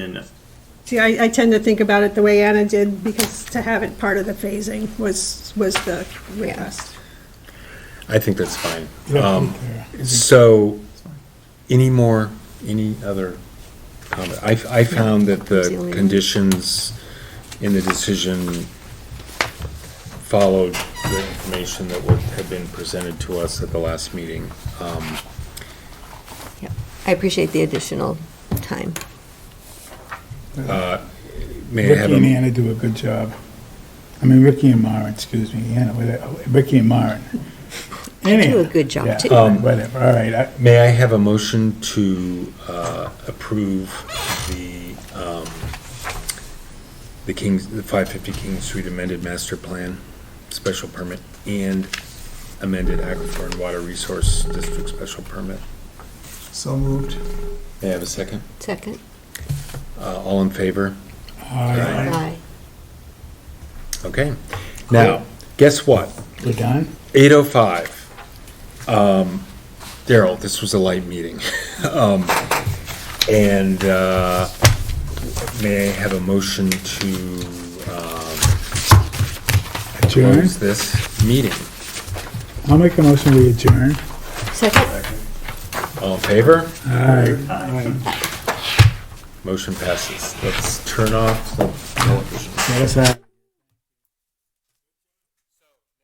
And See, I, I tend to think about it the way Anna did, because to have it part of the phasing was, was the request. I think that's fine. Um, So, any more, any other comment? I, I found that the conditions in the decision followed the information that would have been presented to us at the last meeting. Um, I appreciate the additional time. May I have Ricky and a, Anna do a good job. I mean, Ricky and Maren, excuse me, Anna, whatever, Ricky and Maren. They do a good job, Yeah, too. um, Whatever, all right, I- may I have a motion to uh, approve the, um, the Kings, the 550 King Street amended master plan, special permit, and amended aquifer and water resource district special permit? So moved. May I have a second? Second? Uh, All in favor? all right, Aye. Okay. Now, guess what? we're done? 8:05. Um, Daryl, this was a light meeting. Um, And uh, may I have a motion to um, Adjourn? close this meeting? I'll make a motion to adjourn. Second? All in favor? All right. Motion passes. Let's turn off the television. Yes, I-